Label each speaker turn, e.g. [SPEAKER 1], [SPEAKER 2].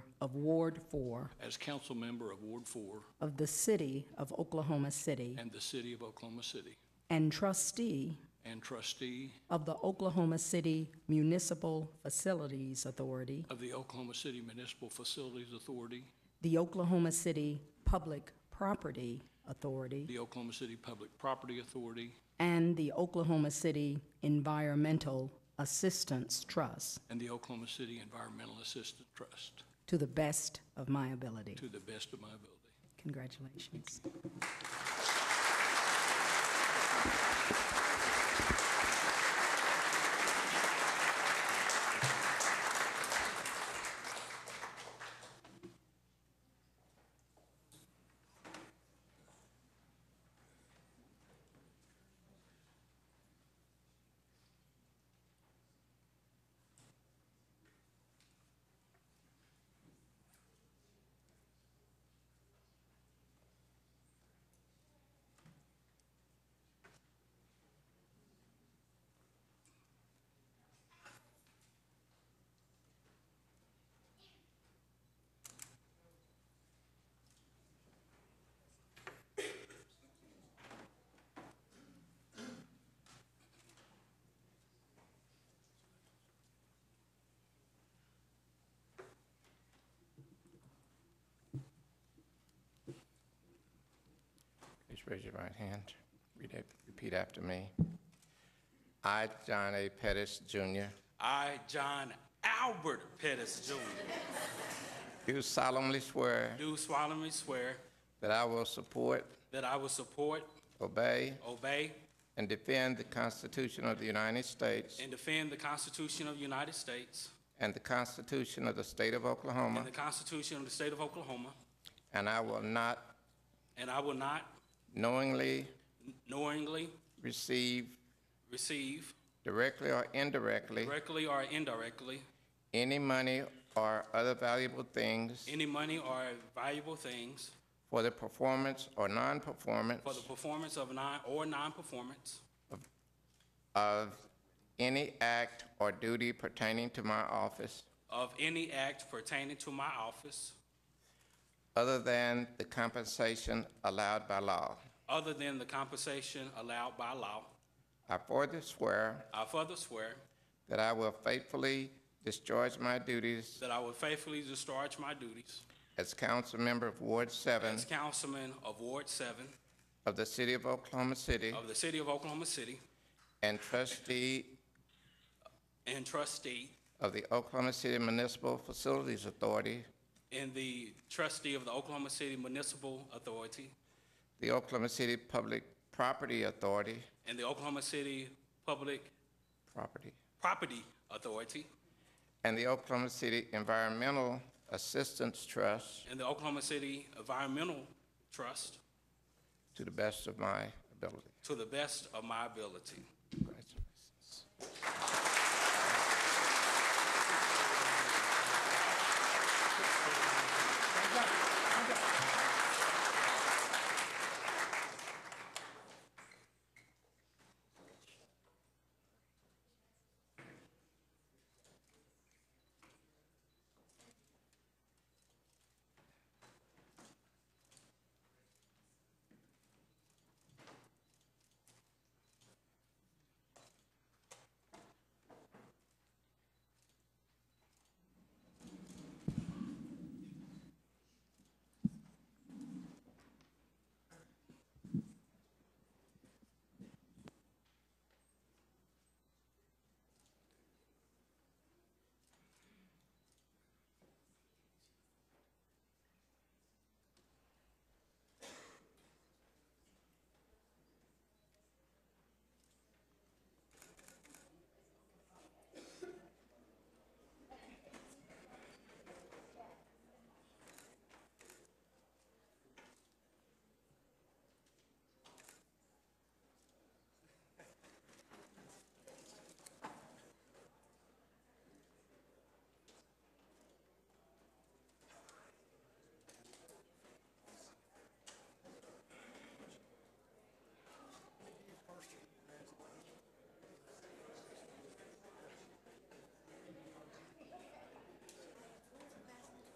[SPEAKER 1] of Ward 4
[SPEAKER 2] as council member of Ward Four
[SPEAKER 1] of the City of Oklahoma City
[SPEAKER 2] and the City of Oklahoma City,
[SPEAKER 1] and trustee
[SPEAKER 2] and trustee
[SPEAKER 1] of the Oklahoma City Municipal Facilities Authority,
[SPEAKER 2] of the Oklahoma City Municipal Facilities Authority,
[SPEAKER 1] the Oklahoma City Public Property Authority,
[SPEAKER 2] the Oklahoma City Public Property Authority,
[SPEAKER 1] and the Oklahoma City Environmental Assistance Trust,
[SPEAKER 2] and the Oklahoma City Environmental Assistance Trust,
[SPEAKER 1] to the best of my ability.
[SPEAKER 2] to the best of my ability.
[SPEAKER 1] Congratulations.
[SPEAKER 3] Please raise your right hand. Read it- Repeat after me. I, John A. Pettis, Jr.,
[SPEAKER 4] I, John Albert Pettis Jr.,
[SPEAKER 3] do solemnly swear
[SPEAKER 4] do solemnly swear
[SPEAKER 3] that I will support,
[SPEAKER 4] that I will support,
[SPEAKER 3] obey,
[SPEAKER 4] obey,
[SPEAKER 3] and defend the Constitution of the United States
[SPEAKER 4] and defend the Constitution of the United States
[SPEAKER 3] and the Constitution of the State of
[SPEAKER 4] and
[SPEAKER 3] Oklahoma,
[SPEAKER 4] the Constitution of the State of Oklahoma,
[SPEAKER 3] and I will not
[SPEAKER 4] and I will not
[SPEAKER 3] knowingly
[SPEAKER 4] knowingly
[SPEAKER 3] receive
[SPEAKER 4] receive,
[SPEAKER 3] directly or indirectly
[SPEAKER 4] directly or indirectly,
[SPEAKER 3] any money or other valuable things
[SPEAKER 4] any money or valuable things
[SPEAKER 3] for the performance or non-performance
[SPEAKER 4] for the performance of non or non-performance
[SPEAKER 3] of any act or duty pertaining to my office
[SPEAKER 4] of any act pertaining to my office
[SPEAKER 3] other than the compensation allowed by law.
[SPEAKER 4] other than the compensation allowed by law.
[SPEAKER 3] I further swear
[SPEAKER 4] I further swear
[SPEAKER 3] that I will faithfully discharge my duties
[SPEAKER 4] that I will faithfully discharge my duties
[SPEAKER 3] as council member of Ward 7
[SPEAKER 4] As councilman of Ward 7
[SPEAKER 3] of the City of Oklahoma City
[SPEAKER 4] of the City of Oklahoma City
[SPEAKER 3] and trustee
[SPEAKER 4] and trustee
[SPEAKER 3] of the Oklahoma City Municipal Facilities Authority,
[SPEAKER 4] and the trustee of the Oklahoma City Municipal Authority
[SPEAKER 3] the Oklahoma City Public Property Authority,
[SPEAKER 4] and the Oklahoma City Public
[SPEAKER 3] property,
[SPEAKER 4] Property Authority
[SPEAKER 3] and the Oklahoma City Environmental Assistance Trust
[SPEAKER 4] and the Oklahoma City Environmental Trust
[SPEAKER 3] to the best of my ability.
[SPEAKER 4] to the best of my ability.
[SPEAKER 3] Congratulations.